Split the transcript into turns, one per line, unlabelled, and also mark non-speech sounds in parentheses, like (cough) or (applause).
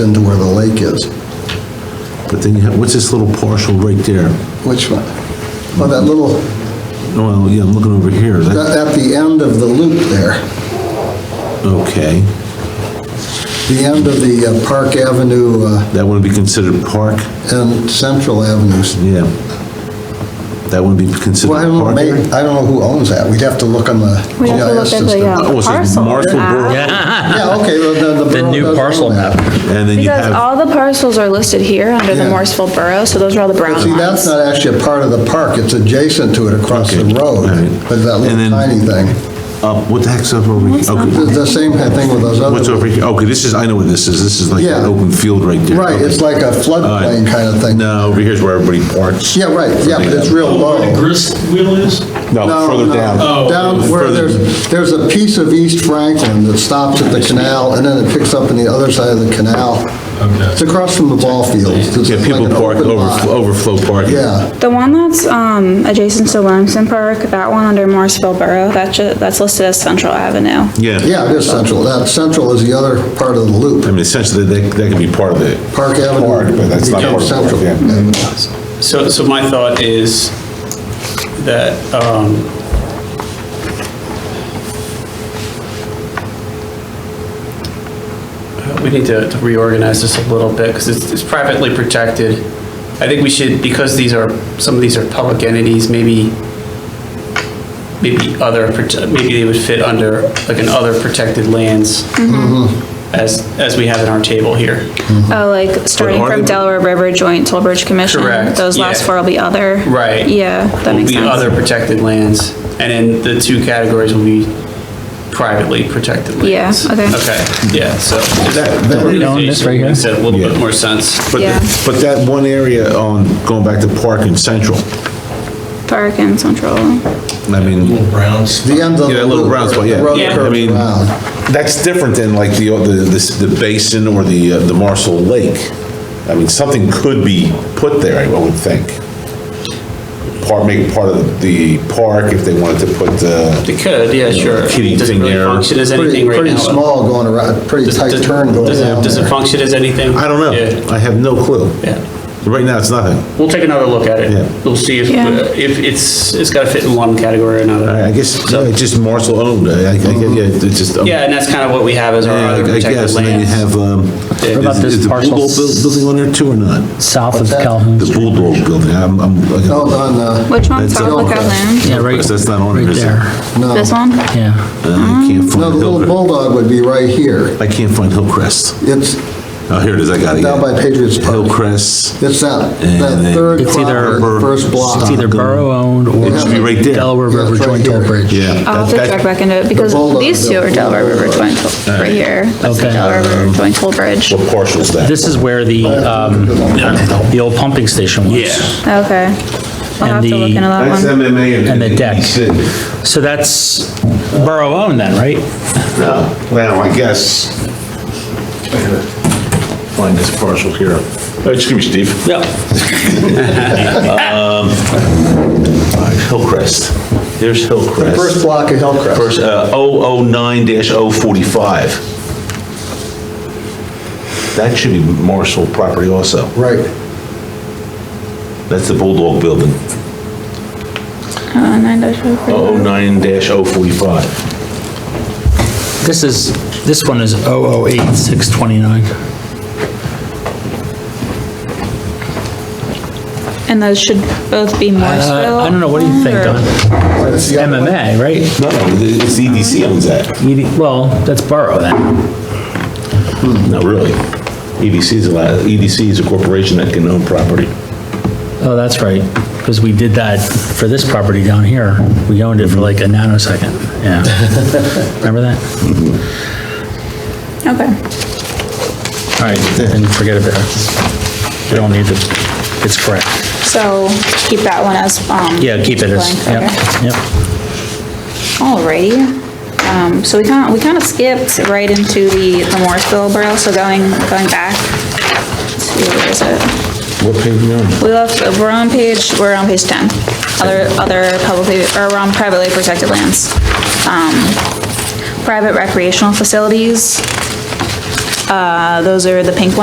into where the lake is.
But then you have, what's this little partial right there?
Which one? Well, that little,
Oh, yeah, I'm looking over here. That-
that- at the end of the loop there,
Okay,
the end of the uh, Park Avenue uh,
that wouldn't be considered park?
and Central Avenues.
Yeah. That wouldn't be considered
Well, I don't know,
park?
may-
area?
I don't know who owns that. We'd have to look on the
We have
GIS
to look at the
system.
uh,
Oh, it's a
parcel.
Marshall
map.
Borough.
Yeah, okay, well, the, the
The
borough
new
does
parcel
own that.
map.
And then you
Because
have,
all the parcels are listed here under the
Yeah.
Morrisville Borough, so those are all the brown
But see, that's
ones.
not actually a part of the park, it's adjacent to it across the
Okay, all
road,
right.
but that
And
little
then-
tiny thing.
up, what the heck's up over here?
What's up?
The
Okay,
the same kind of thing with those
What's
other,
over here? Okay, this is, I know what this is. This is like an
Yeah.
open field right there.
right,
Okay.
it's like a floodplain kind of thing.
No, over here's where everybody parks.
Yeah, right, yeah, but it's real low.
Where the grist wheel is?
No,
No,
further
no,
Oh.
down.
Down where
Further-
there's, there's a piece of East Franklin that stops at the canal, and then it picks up on the other side of the canal. It's across from the ball fields. It's
Yeah,
like
people
an
park,
open
overfl-
lot.
overflow parking.
Yeah,
The one that's um, adjacent to Williamson Park, that one under Morrisville Borough, that's, ju- that's listed as Central Avenue.
Yeah.
yeah, it is central. That central is the other part of the
I
loop,
mean, essentially, that, that could be part of the
Park Avenue.
park, but that's not part of the park,
Central.
yeah.
So, so my thought is that, um, uh, we need to to reorganize this a little bit, because it's it's privately protected. I think we should, because these are, some of these are public entities, maybe, maybe other, prote- maybe they would fit under, like an other protected lands, as, as we have in our table here.
Oh, like starting
are
from
they-
Delaware River Joint Toll Bridge Commission.
Correct,
Those last
yeah.
four will be other.
Right.
Yeah, that
will
makes
be other
sense.
protected lands, and then the two categories will be privately protected
Yeah,
lands.
okay.
Okay, yeah, so.
That- that-
We own this right here?
Makes a little
Yeah.
bit more sense.
But,
Yeah.
the- but that one area on, going back to Park and Central,
Park and Central.
I mean,
The end of
Yeah,
the
that little
loop,
brown spot,
where
yeah.
the road
Yeah. I
curves
mean-
around.
that's different than like the, the, this- the basin or the, uh, the Marshall Lake. I mean, something could be put there, I would think. Part, make it part of the park if they wanted to put, uh,
They could, yeah, sure.
Kitty
Does it
thing
really
there.
function as
Pretty,
anything right
pretty
now?
small going around, pretty
Does-
tight
does-
turn going
does it-
down
Does it
there.
function as anything?
I don't know.
Yeah,
I have no clue.
Yeah,
Right now, it's nothing.
we'll take another look at
Yeah.
it. We'll see if, uh,
Yeah.
if it's, it's gotta fit in one category or another.
I I guess, yeah, it's just Marshall owned, I, I, yeah, it's just. um,
Yeah, and that's kind of what we have as our
Yeah,
other
I- I
protected
guess, and then you
lands.
have, um,
What
about
is-
this
is the
parcel?
Bulldog buil- building on there too or not?
South of
What's that?
Calhoun.
The Bulldog building, I'm, I'm. I
No,
got-
on, uh,
Which one?
That's
South
all.
Lookout Land?
Yeah, right,
That's not on
right
it, is it?
there,
no.
This one?
yeah.
Uh, I can't
Mm-hmm. No,
find
the little
Hillcrest.
bulldog would be right here.
I can't find Hillcrest.
It's
Oh, here it is, I got it.
down by
yeah.
Patriots Park.
Hillcrest,
It's that,
And
that
then-
third
It's either-
property, first block.
It's either borough-owned or
It should be
right there.
Delaware
Yeah,
River
it's right
Joint Toll
here.
Bridge.
yeah.
I'll have to
that-
check
that-
back into it because
bulldog
these two
built
are Delaware River
bulldog.
Joint, Toll- right here. That's the
Okay.
Delaware River Joint Toll Bridge.
What partial's that?
This is where the, um, the old pumping station was.
Yeah.
Okay. I'll
And
have to look
the-
into that one.
MMA
And the deck.
ABC.
So that's borough-owned then, right?
No, well, I guess. I gotta Find this partial here. Oh, Excuse me, Steve.
Yeah.
All right, Hillcrest, there's Hillcrest.
First block of Hillcrest.
First, uh, 009-045. That should be Marshall property also.
Right.
That's the Bulldog Building,
Uh, nine dash oh four.
009-045.
This is, this one is 008629.
And those should both be Morrisville?
Uh, I don't know, what do you think,
or-
Don?
That's the other one.
MMA, right?
No, it's EDC owns that.
ED Well, that's borough then.
Not really. EDC is allowed, EDC is a corporation that can own property.
Oh, that's right, because we did that for this property down here. We owned it for like a nanosecond,
(laughs)
yeah. Remember that?
Okay.
All right, and forget about it. We don't need it, it's correct.
So keep that one as, um.
Yeah, keep it as,
blank, okay.
yep, yep.
Alrighty, um, so we kind of, we kind of skipped right into the, the Morrisville Borough, so going, going back to, where is it?
What page are you on?
We left, we're on page, we're on page ten, other, other publicly, or we're on privately protected lands. Um, private recreational facilities, uh, those are the pink ones.